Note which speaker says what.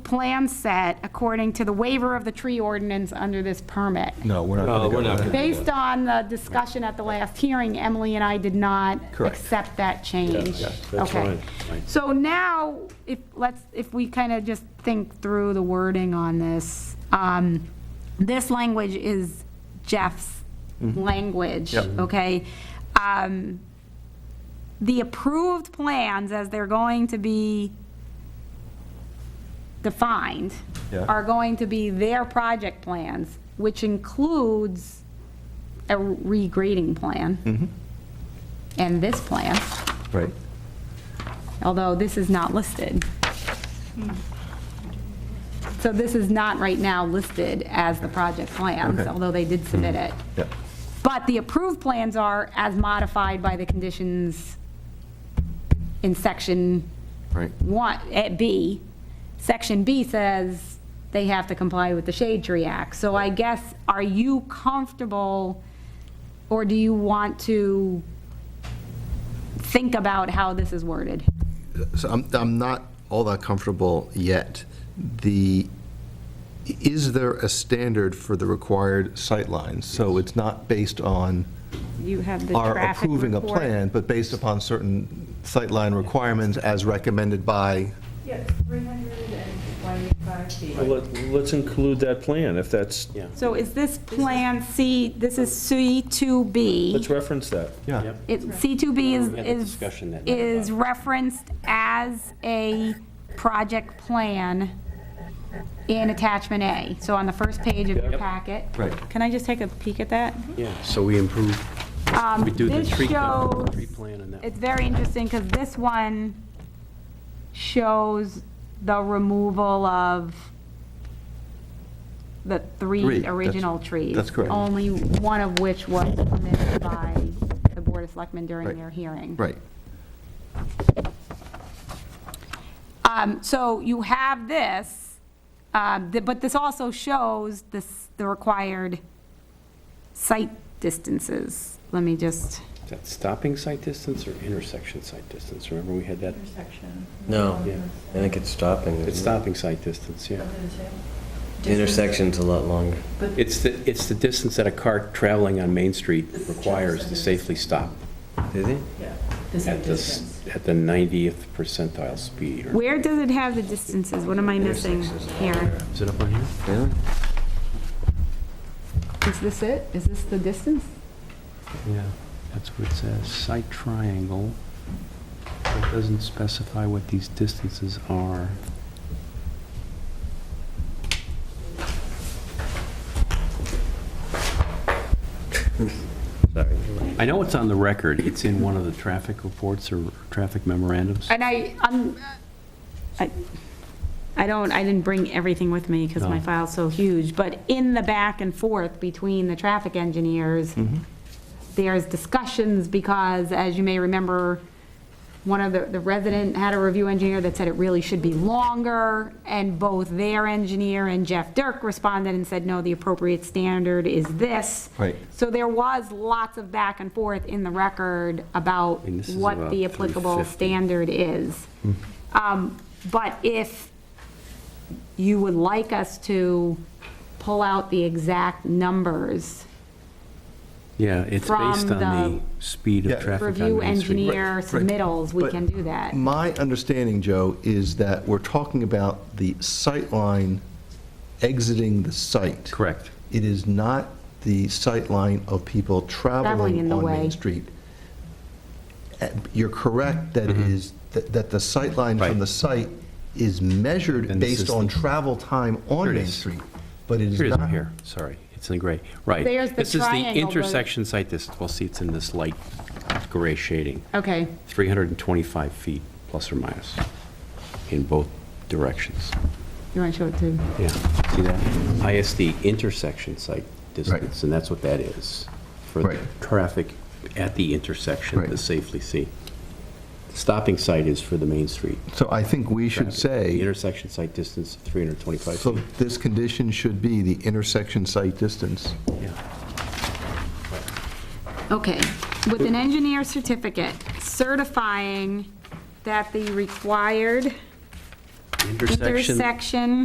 Speaker 1: plan set according to the waiver of the tree ordinance under this permit.
Speaker 2: No, we're not
Speaker 3: No,
Speaker 2: going to
Speaker 3: Oh, we're not
Speaker 2: go
Speaker 3: gonna-
Speaker 2: there.
Speaker 1: Based on the discussion at the last hearing, Emily and I did not
Speaker 2: Correct.
Speaker 1: accept that change.
Speaker 3: Yeah, yeah, that's
Speaker 1: Okay.
Speaker 3: fine, fine.
Speaker 1: So now, if, let's, if we kind of just think through the wording on this, um, this language is Jeff's
Speaker 3: Mm-hmm.
Speaker 1: language,
Speaker 2: Yep.
Speaker 1: okay? Um, The approved plans, as they're going to be defined
Speaker 2: Yeah.
Speaker 1: are going to be their project plans, which includes a
Speaker 2: Mm-hmm.
Speaker 1: regrading plan. And this plan,
Speaker 2: Right.
Speaker 1: although this is not listed. So this is not right now listed as the project plans,
Speaker 2: Okay. Mm-hmm.
Speaker 1: although they did submit it.
Speaker 2: Yeah.
Speaker 1: But the approved plans are as modified by the conditions in section
Speaker 2: Right.
Speaker 1: one, at B, section B says they have to comply with the Shade Tree Act. So I guess, are you comfortable, or do you want to think about how this is worded?
Speaker 4: So I'm, I'm not all that comfortable yet. The, is there a standard for the required sightlines? So it's not based on
Speaker 1: You have the
Speaker 4: our
Speaker 1: traffic
Speaker 4: approving a
Speaker 1: report.
Speaker 4: plan, but based upon certain sightline requirements as recommended by,
Speaker 5: Yes, 325 feet.
Speaker 3: Well, let- Let's include that plan, if that's,
Speaker 1: So is this Plan C, this is C2B?
Speaker 3: let's reference that.
Speaker 2: Yeah.
Speaker 1: It- C2B is-
Speaker 6: We had the
Speaker 1: is,
Speaker 6: discussion that night
Speaker 1: is referenced as a project plan in Attachment A, so on the first page of your
Speaker 3: Yep.
Speaker 1: packet.
Speaker 2: Right.
Speaker 1: Can I just take a peek at that?
Speaker 6: Yeah, so we improve, we do the
Speaker 1: this
Speaker 6: tree,
Speaker 1: shows-
Speaker 6: tree plan and that.
Speaker 1: It's very interesting, because this one shows the removal of the
Speaker 2: Three,
Speaker 1: three
Speaker 2: that's-
Speaker 1: original trees.
Speaker 2: that's correct.
Speaker 1: Only one of which was permitted by the Board of Selectmen during
Speaker 2: Right.
Speaker 1: their hearing.
Speaker 4: right,
Speaker 1: Um, So you have this, um, th- but this also shows this, the required site distances. Let me just,
Speaker 6: Is that stopping site distance or intersection site distance? Remember, we had that,
Speaker 5: Intersection.
Speaker 7: No,
Speaker 6: Yeah.
Speaker 7: I think it's stopping.
Speaker 6: it's stopping site distance, yeah.
Speaker 7: The intersection's a lot longer.
Speaker 6: It's the, it's the distance that a car traveling on Main Street requires to safely stop
Speaker 7: Did it?
Speaker 5: Yeah, the same
Speaker 6: at the, s-
Speaker 5: distance.
Speaker 6: at the 90th percentile speed. or-
Speaker 1: where does it have the distances? What am I missing here?
Speaker 6: Is it up on here?
Speaker 7: Really?
Speaker 1: Is this it? Is this the distance?
Speaker 6: Yeah, that's what it says, site triangle. It doesn't specify what these distances are.
Speaker 7: Sorry.
Speaker 6: I know it's on the record, it's in one of the traffic reports or traffic memorandums.
Speaker 1: And I, I'm, I, I don't, I didn't bring everything with me because my
Speaker 6: No.
Speaker 1: file's so huge, but in the back and forth between the traffic engineers, there's discussions because, as you may remember, one of the, the resident had a review engineer that said it really should be longer, and both their engineer and Jeff Dirk responded and said, no, the appropriate standard is this.
Speaker 2: Right.
Speaker 1: So there was lots of back and forth in the record about
Speaker 6: mean, this is
Speaker 1: what
Speaker 6: about
Speaker 1: the applicable
Speaker 6: 350.
Speaker 1: standard is. Um, But if you would like us to pull out the exact numbers,
Speaker 6: Yeah, it's
Speaker 1: From
Speaker 6: based on the speed
Speaker 2: Yeah.
Speaker 6: of traffic on
Speaker 1: review
Speaker 6: Main Street.
Speaker 1: engineer
Speaker 2: right.
Speaker 1: submittals, we
Speaker 2: But-
Speaker 1: can do that.
Speaker 4: My understanding, Joe, is that we're talking about the sightline exiting the site.
Speaker 6: Correct.
Speaker 4: It is not the sightline of people
Speaker 1: Traveling in
Speaker 4: traveling
Speaker 1: the
Speaker 4: on
Speaker 1: way.
Speaker 4: Main Street. Uh, You're correct that it is, that that the sightline
Speaker 6: Mm-hmm. Right.
Speaker 4: from the site is measured
Speaker 6: And this
Speaker 4: based
Speaker 6: is
Speaker 4: on
Speaker 6: the-
Speaker 4: travel time
Speaker 6: Here
Speaker 4: on
Speaker 6: it
Speaker 4: Main
Speaker 6: is.
Speaker 4: Street, but it is
Speaker 6: Here it is,
Speaker 4: not.
Speaker 6: right here, sorry, it's in gray, right.
Speaker 1: There's the
Speaker 6: This is the
Speaker 1: triangle, but-
Speaker 6: intersection site distance, well, see, it's in this light gray shading,
Speaker 1: Okay,
Speaker 6: 325 feet plus or minus in both directions.
Speaker 1: you want to show it to?
Speaker 6: Yeah, see that? ISD intersection site distance, and that's what that is. For the
Speaker 4: Right.
Speaker 6: traffic at the intersection to
Speaker 4: Right.
Speaker 6: safely see. Stopping site is for the main street.
Speaker 4: So I think we should
Speaker 6: The
Speaker 4: say,
Speaker 6: intersection site distance, 325
Speaker 4: so
Speaker 6: feet.
Speaker 4: this condition should be the intersection site distance.
Speaker 6: Yeah.
Speaker 1: Okay, with an engineer certificate certifying that the required intersection